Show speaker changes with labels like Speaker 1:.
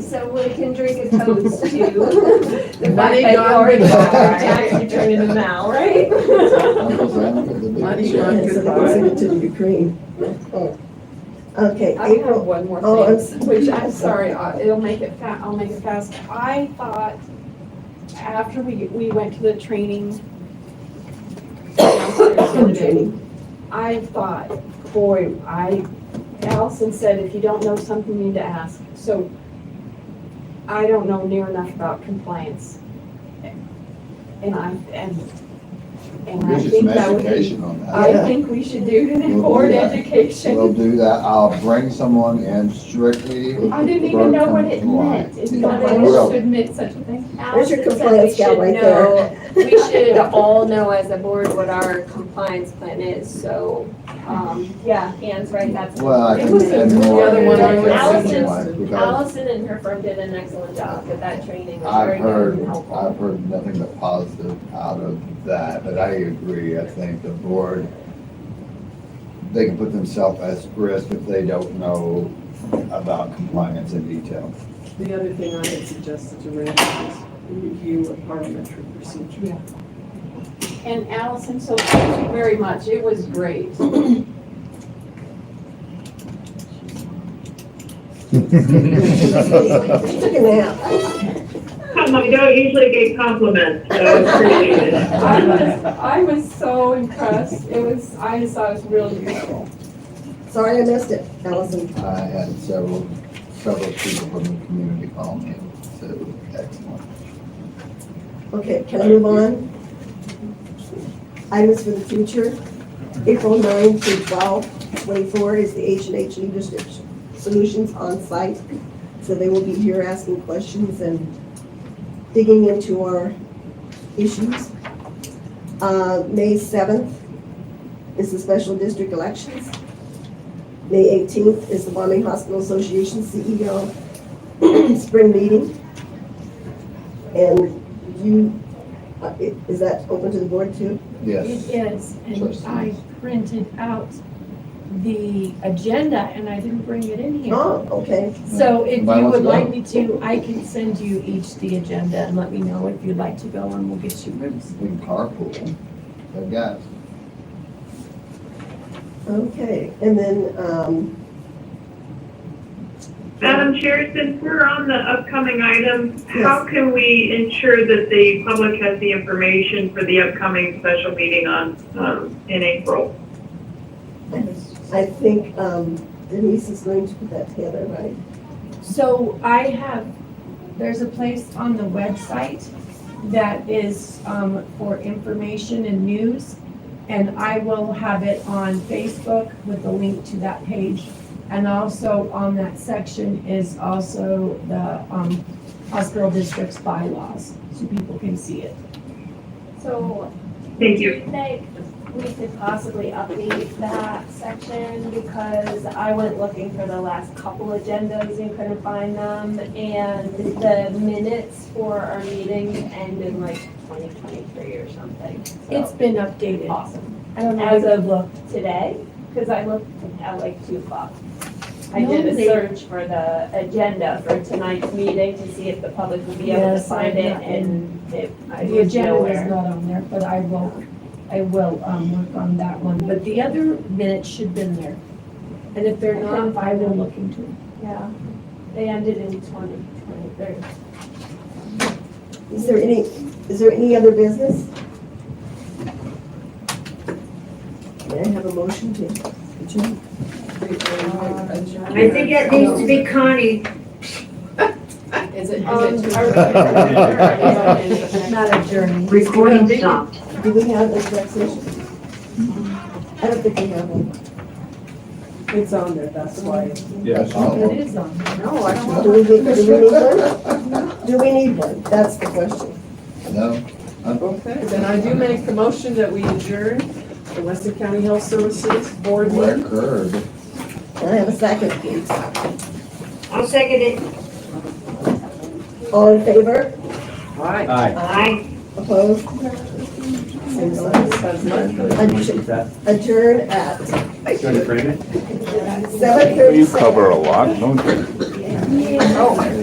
Speaker 1: so we can drink a toast to the fact
Speaker 2: Money
Speaker 1: that you
Speaker 2: gone
Speaker 1: already
Speaker 2: goodbye.
Speaker 1: got our tax return in the mail, right?
Speaker 2: Money
Speaker 3: Yeah,
Speaker 2: gone
Speaker 3: so they can send
Speaker 2: goodbye.
Speaker 3: it to the Ukraine. Okay,
Speaker 1: I have
Speaker 3: April,
Speaker 1: one more
Speaker 3: Oh, I'm
Speaker 1: thing, which I'm sorry, I- it'll make it fa, I'll make it fast. I thought after we, we went to the training downstairs the other
Speaker 3: spring
Speaker 1: day,
Speaker 3: training.
Speaker 1: I thought, boy, I, Allison said, if you don't know something, you need to ask. So I don't know near enough about compliance. And I, and, and I
Speaker 4: There's just some
Speaker 1: think that would,
Speaker 4: education on
Speaker 1: I
Speaker 4: that.
Speaker 3: Yeah.
Speaker 1: think we should do it in
Speaker 4: We'll do
Speaker 1: board
Speaker 4: that. We'll
Speaker 1: education.
Speaker 4: do that. I'll bring someone in strictly.
Speaker 1: I didn't even know what it meant. It's
Speaker 4: Yeah,
Speaker 1: not
Speaker 4: I
Speaker 1: that
Speaker 4: will.
Speaker 1: I should admit such a thing.
Speaker 3: There's your
Speaker 5: Allison said
Speaker 3: compliance gal right
Speaker 5: We should know, we should all know as a board what our compliance plan is, so, um, yeah, Anne's right, that's.
Speaker 4: Well, I
Speaker 5: It
Speaker 4: can
Speaker 5: was
Speaker 4: spend
Speaker 5: a-
Speaker 4: more.
Speaker 2: The other one I would
Speaker 4: on
Speaker 5: suggest.
Speaker 4: compliance Because
Speaker 5: Allison and her firm did an excellent job with that training, it was very
Speaker 4: I've
Speaker 5: good
Speaker 4: heard,
Speaker 5: and helpful.
Speaker 4: I've heard nothing but positive out of that, but I agree. I think the board, they can put themselves at risk if they don't know about compliance in detail.
Speaker 2: The other thing I had suggested to Randy is review of parliamentary procedure.
Speaker 1: And Allison, so thank you very much. It was great.
Speaker 3: She took a nap.
Speaker 6: I don't usually get compliments, so it's appreciated.
Speaker 1: I was, I was so impressed. It was, I just thought it was really beautiful.
Speaker 3: Sorry I missed it, Allison.
Speaker 4: I had several, several people from the community call me, so excellent.
Speaker 3: Okay, can I move on? Items for the future, April 9 through 12, 24 is the H and H Leadership Solutions on-site. So they will be here asking questions and digging into our issues. Uh, May 7th is the special district elections. May 18th is the Wyoming Hospital Association CEO spring meeting. And you, uh, i- is that open to the board too?
Speaker 4: Yes.
Speaker 7: It is,
Speaker 4: Trust
Speaker 7: and I
Speaker 4: me.
Speaker 7: printed out the agenda and I didn't bring it in here.
Speaker 3: Oh, okay.
Speaker 7: So if
Speaker 4: Mine
Speaker 7: you
Speaker 4: was
Speaker 7: would like
Speaker 4: gone.
Speaker 7: me to, I can send you each the agenda and let me know if you'd like to go and we'll get you rooms.
Speaker 4: We can carpool. I've got
Speaker 3: Okay, and then, um,
Speaker 6: Madam Chair, since we're on the upcoming items, how can we ensure that the public has the information for the upcoming special meeting on, um, in April?
Speaker 3: I think um, Denise is going to put that together, right?
Speaker 7: So I have, there's a place on the website that is um, for information and news. And I will have it on Facebook with the link to that page. And also on that section is also the um, hospital district's bylaws, so people can see it.
Speaker 5: So
Speaker 6: Thank you.
Speaker 5: Do you think we could possibly update that section? Because I went looking for the last couple agendas and couldn't find them. And the minutes for our meeting end in like 2023 or something.
Speaker 7: It's
Speaker 5: So
Speaker 7: been updated.
Speaker 5: awesome.
Speaker 7: I don't know
Speaker 5: As
Speaker 7: if I've looked.
Speaker 5: Today, because I looked at like 2 o'clock. I
Speaker 7: No,
Speaker 5: did a
Speaker 7: they-
Speaker 5: search for the agenda for tonight's meeting to see if the public would be able to
Speaker 7: Yes, I
Speaker 5: find it
Speaker 7: know.
Speaker 5: and it, I
Speaker 7: The
Speaker 5: was
Speaker 7: agenda is
Speaker 5: nowhere.
Speaker 7: not on there, but I will, I will um, work on that one. But the other minutes should have been there. And if they're not, I will look into it.
Speaker 5: Yeah. They ended in 2023.
Speaker 3: Is there any, is there any other business? May I have a motion to adjourn?
Speaker 8: I think that needs to be Connie.
Speaker 2: Is it,
Speaker 1: Um,
Speaker 2: is it?
Speaker 1: our-
Speaker 7: Not a journey.
Speaker 8: Recording stopped.
Speaker 3: Do we have a direct session? I don't think we have one.
Speaker 2: It's on there, that's why.
Speaker 4: That's all.
Speaker 7: It is on.
Speaker 1: No, I don't want
Speaker 3: Do we, do we need one? Do we need one? That's the question.
Speaker 4: No? I'm-
Speaker 2: Okay, then I do make the motion that we adjourn the Weston County Health Services Board meeting.
Speaker 4: Record.
Speaker 3: Can I have a second, please?
Speaker 8: I'll second it.
Speaker 3: All in favor?
Speaker 2: All right.
Speaker 8: Aye.
Speaker 3: Opposed? Same sign.
Speaker 2: That's my-
Speaker 3: Adjourn at
Speaker 9: Trying to frame it?
Speaker 3: seven thirty-seven.
Speaker 10: a lot, don't you?
Speaker 3: Oh,